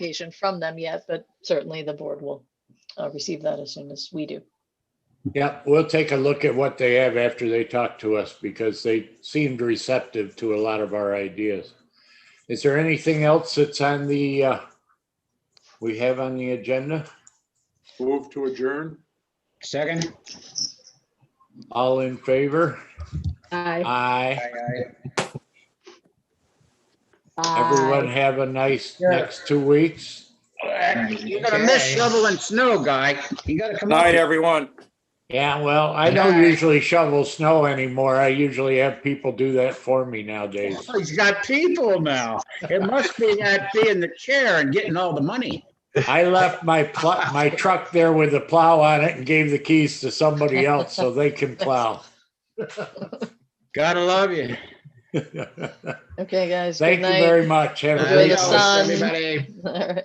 clarification from them yet, but certainly the board will uh, receive that as soon as we do. Yeah, we'll take a look at what they have after they talk to us because they seemed receptive to a lot of our ideas. Is there anything else that's on the, uh, we have on the agenda? Move to adjourn? Second? All in favor? Aye. Aye. Aye, Everyone have a nice Yeah. next two weeks. aye. You're gonna miss shoveling snow, guy. You gotta come up. Night, everyone. Yeah, well, I don't Aye. usually shovel snow anymore. I usually have people do that for me nowadays. Oh, He's got people now. It must be that being the chair and getting all the money. I left my pl- my truck there with the plow on it and gave the keys to somebody else so they can plow. Gotta love you. Thank Okay, guys. you Good night. very much. Have a Enjoy great the Adios, night. sun. Everybody. All right.